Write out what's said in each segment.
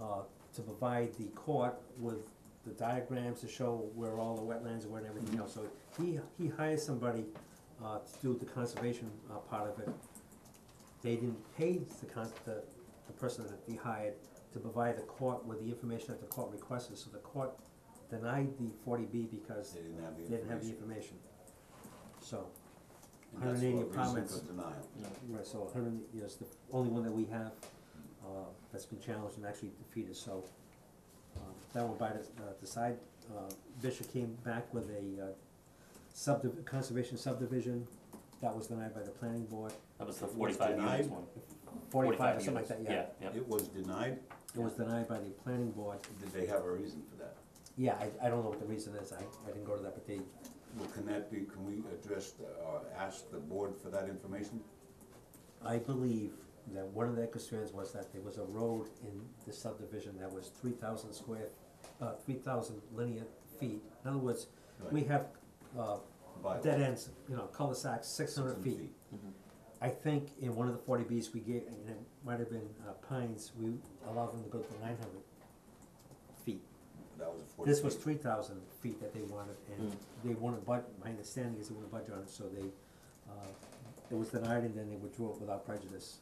uh, to provide the court with the diagrams to show where all the wetlands were and everything else. So he, he hired somebody, uh, to do the conservation, uh, part of it. They didn't pay the cons, the, the person that he hired to provide the court with the information that the court requested, so the court denied the forty B because They didn't have the they didn't have the information. information. So, And that's 180 what reason comments. for denial. right, so hundred, is the only one that we have, uh, that's been challenged and actually defeated, so, um, that one by the, uh, the side, uh, Bishop came back with a, uh, subdiv- conservation subdivision, that was denied by the planning board, That was the Was forty-five units denied? one. forty-five or something like that, yeah. units. Yeah, yeah. It was denied, It was denied by the planning board, did they have a reason for that? yeah, I, I don't know what the reason is, I, I didn't go to that, but they, Well, can that be, can we address the- or ask the board for that information? I believe that one of their concerns was that there was a road in the subdivision that was three thousand square, uh, three thousand linear feet. In other words, we Right. have, uh, By dead ends, you know, cul-de-sacs, six hundred 600 feet. I think in one of the forty Bs we gave, and it might have been, uh, Pines, we allowed them to go to nine hundred feet. That was a forty This was feet. Hmm. three thousand feet that they wanted, and they wouldn't budge, my understanding is they wouldn't budge on it, so they, uh, it was denied, and then they withdrew it without prejudice,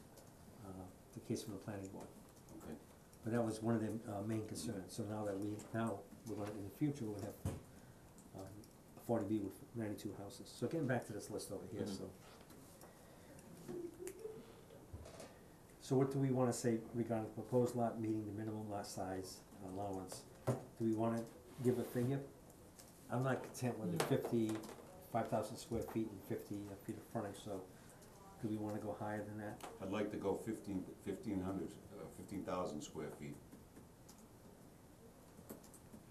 uh, the case from the planning board. Okay. But that was one of their, uh, main concerns, so now that we, now, we're gonna, in the future, we'll have, um, a forty B with ninety-two houses, so getting back to this list over here, Mhm. so. So what do we wanna say regarding the proposed lot meeting the minimum lot size allowance? Do we wanna give a figure? I'm not content with the fifty, five thousand square feet and fifty uh, feet of frontage, so do we wanna go higher than that? I'd like to go fifteen, fifteen hundred, uh, fifteen thousand square feet.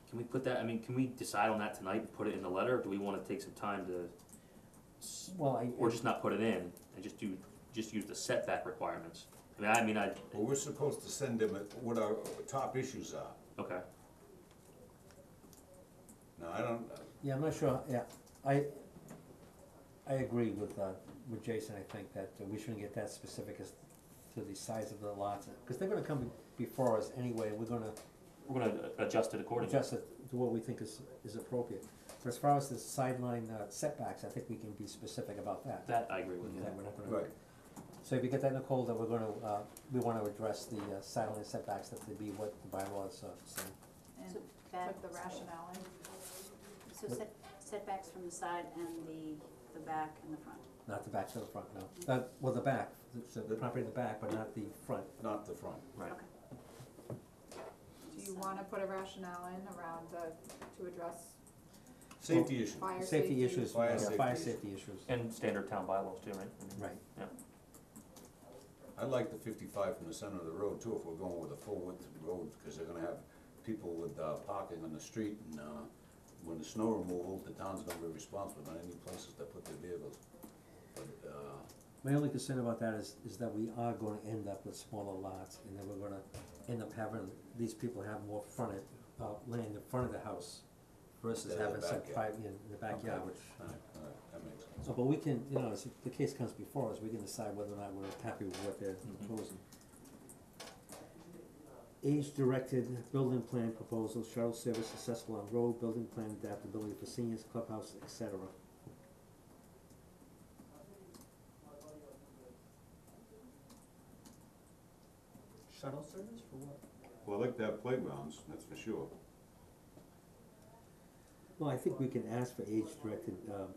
Can we put that, I mean, can we decide on that tonight and put it in the letter, or do we wanna take some time to, s- Well, I. or just not put it in, and just do, just use the setback requirements? I mean, I mean, I, Well, we're supposed to send them a- what our top issues are. okay, Now, I don't, uh, Yeah, I'm not sure, yeah, I, I agree with, uh, with Jason, I think that we shouldn't get that specific as to the size of the lots, cause they're gonna come before us anyway, we're gonna we're gonna adjust it accordingly. adjust it to what we think is, is appropriate. But as far as the sideline uh, setbacks, I think we can be specific about that, That I agree with you. that we're not gonna. right, So if you get that, Nicole, that we're gonna, uh, we wanna address the uh, sideline setbacks, that to be what the bylaws, uh, say. And So back, put the rationale in. so set, setbacks from the side and the, the back and the front. not the back to the front, no, uh, well, the back, the, the property in the back, but not the front. not the front. Right. Okay. Do you wanna put a rationale in around the, to address Safety issue. fire safety? Safety issues, Fire yeah, fire safety safety issues, And standard town bylaws too, right? I mean, right. I like the fifty-five from the center of the road too, if we're going with a full width road, because they're gonna have people with, uh, parking on the street and, uh, when the snow removal, the town's gonna be responsible on any places that put their vehicles. But, uh, My only concern about that is, is that we are gonna end up with smaller lots, and then we're gonna end up having, these people have more fronted, uh, land in front of the house versus Than in the having some backyard. private, in the backyard, which. alright, alright, that makes sense. So, but we can, you know, as the case comes before us, we can decide whether or not we're happy with what they're Mhm. proposing. Age-directed building plan proposal, shuttle service accessible on road, building plan adaptability for seniors, clubhouse, et cetera. Shuttle service for what? Well, I like to have playgrounds, that's for sure. Well, I think we can ask for age-directed, um,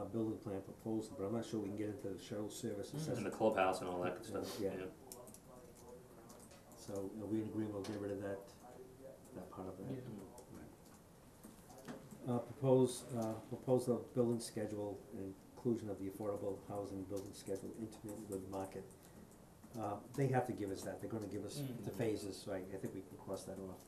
uh, building plan proposal, but I'm not sure we can get into the shuttle service And the assessment. clubhouse and all that good stuff, yeah. Yeah. So, are we in agreement, we'll get rid of that, that part of that? Uh, propose, uh, proposal of building schedule and inclusion of the affordable housing building schedule intimate with market. Uh, they have to give us that, they're gonna give us the Mhm. phases, so I, I think we can cross that off.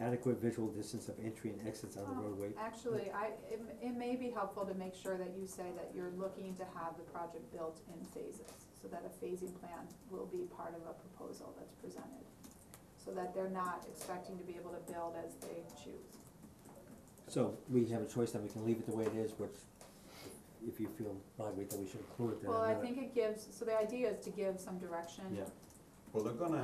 Adequate visual distance of entry and exits on the Oh, roadway, Actually, I, it, it may be helpful to make sure that you say that you're looking to have the project built in phases, so that a phasing plan will be part of a proposal that's presented. So that they're not expecting to be able to build as they choose. so we have a choice, then we can leave it the way it is, which if you feel, Marguerite, that we should include it, then Well, I another- think it gives, so the idea is to give some direction Yeah. Well, they're gonna